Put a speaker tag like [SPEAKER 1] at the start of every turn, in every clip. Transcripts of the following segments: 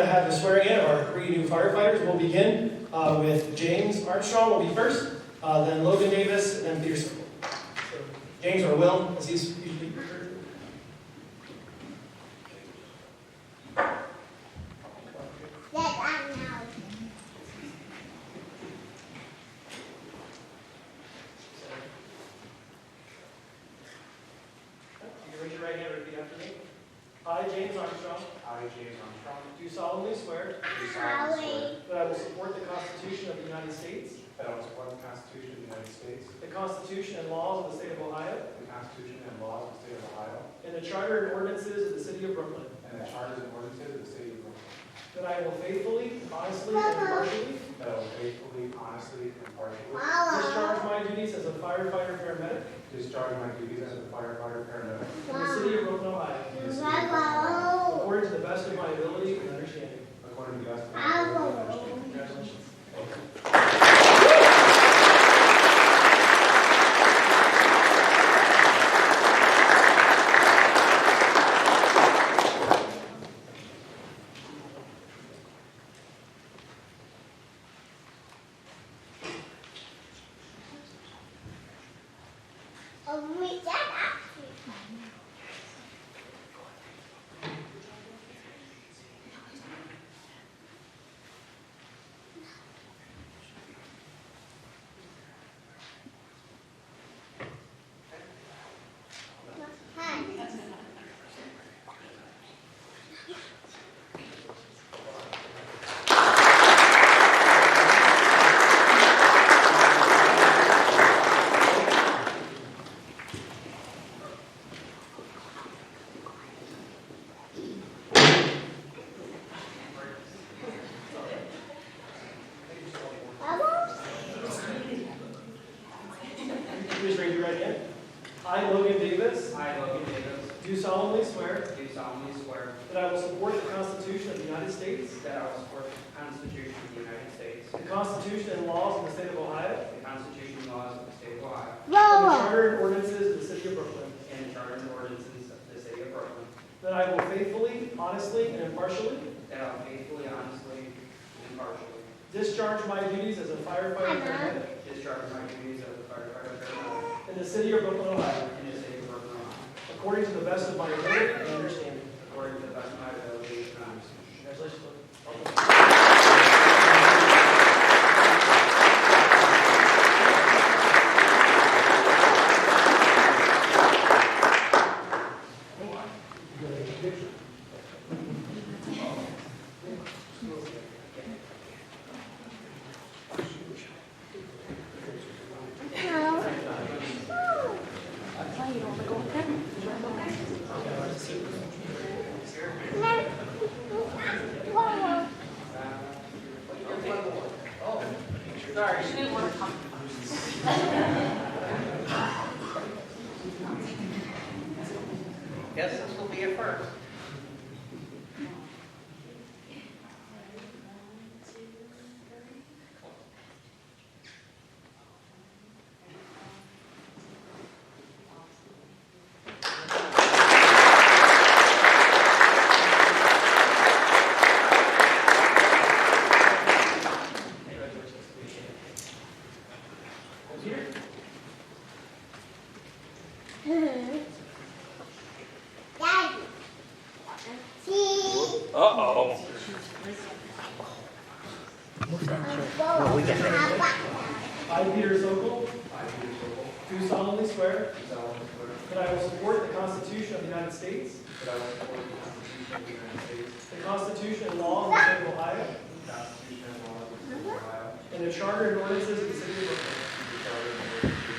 [SPEAKER 1] To have the swearing in of our three new firefighters, we'll begin uh, with James Armstrong will be first, uh, then Logan Davis, and then Peter Circle. So, James or Will, as he's usually referred.
[SPEAKER 2] Yes, I know.
[SPEAKER 1] You can raise your right hand and repeat after me. I, James Armstrong,
[SPEAKER 3] I, James Armstrong,
[SPEAKER 1] do solemnly swear
[SPEAKER 3] do solemnly swear
[SPEAKER 1] that I will support the Constitution of the United States,
[SPEAKER 3] that I will support the Constitution of the United States,
[SPEAKER 1] the Constitution and laws of the state of Ohio,
[SPEAKER 3] the Constitution and laws of the state of Ohio,
[SPEAKER 1] and the charter and ordinances of the city of Brooklyn,
[SPEAKER 3] and the charters and ordinances of the city of Brooklyn,
[SPEAKER 1] that I will faithfully, honestly, and impartially
[SPEAKER 3] that I will faithfully, honestly, and impartially
[SPEAKER 1] Discharge
[SPEAKER 2] Follow.
[SPEAKER 1] my duties as a firefighter paramedic
[SPEAKER 3] discharge my duties as a firefighter paramedic
[SPEAKER 1] in the city of Brooklyn, Ohio,
[SPEAKER 3] in the city of Brooklyn,
[SPEAKER 2] Follow.
[SPEAKER 1] according to the best of my ability and understanding.
[SPEAKER 3] according to the best of my ability and
[SPEAKER 2] Follow.
[SPEAKER 3] understanding.
[SPEAKER 1] Congratulations.
[SPEAKER 2] Oh, we got that. Hi. Bubbles?
[SPEAKER 1] Please raise your right hand. I, Logan Davis,
[SPEAKER 4] I, Logan Davis,
[SPEAKER 1] do solemnly swear
[SPEAKER 4] do solemnly swear
[SPEAKER 1] that I will support the Constitution of the United States,
[SPEAKER 4] that I will support the Constitution of the United States,
[SPEAKER 1] the Constitution and laws of the state of Ohio,
[SPEAKER 4] the Constitution and laws of the State of Ohio,
[SPEAKER 1] and the
[SPEAKER 2] Bubbles.
[SPEAKER 1] charter and ordinances of the city of Brooklyn,
[SPEAKER 4] and the Charter and ordinances of the City of Brooklyn,
[SPEAKER 1] that I will faithfully, honestly, and impartially
[SPEAKER 4] that I will faithfully, honestly, and impartially
[SPEAKER 1] discharge my duties as a firefighter paramedic
[SPEAKER 4] discharge my duties as a firefighter paramedic
[SPEAKER 1] in the city of Brooklyn, Ohio,
[SPEAKER 4] in the City of Brooklyn, Ohio,
[SPEAKER 1] according to the best of my ability and understanding.
[SPEAKER 4] according to the best of my ability and understanding.
[SPEAKER 1] Congratulations. Logan. Welcome.
[SPEAKER 2] No. Bubbles.
[SPEAKER 5] Sorry, she didn't want to come. Guess this will be a first.
[SPEAKER 2] Daddy. See?
[SPEAKER 6] Uh-oh.
[SPEAKER 2] No, we got that.
[SPEAKER 1] I, Peter Sokol,
[SPEAKER 3] I, Peter Sobel,
[SPEAKER 1] do solemnly swear
[SPEAKER 3] do solemnly swear
[SPEAKER 1] that I will support the Constitution of the United States,
[SPEAKER 3] that I will support the Constitution of the United States,
[SPEAKER 1] the Constitution and laws of the state of Ohio,
[SPEAKER 3] the Constitution and laws of the state of Ohio,
[SPEAKER 1] and the charter and ordinances of the city of Brooklyn,
[SPEAKER 3] and the charter and ordinances of the city of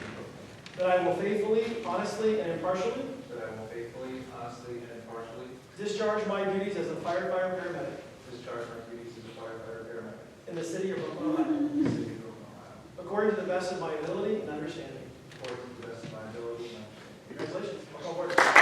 [SPEAKER 3] Brooklyn.
[SPEAKER 1] that I will faithfully, honestly, and impartially
[SPEAKER 3] That I will faithfully, honestly, and impartially
[SPEAKER 1] discharge my duties as a firefighter paramedic
[SPEAKER 3] discharge my duties as a firefighter paramedic
[SPEAKER 1] in the city of Brooklyn, Ohio,
[SPEAKER 3] in the city of Brooklyn, Ohio,
[SPEAKER 1] according to the best of my ability and understanding.
[SPEAKER 3] according to the best of my ability and understanding.
[SPEAKER 1] Congratulations. Welcome aboard.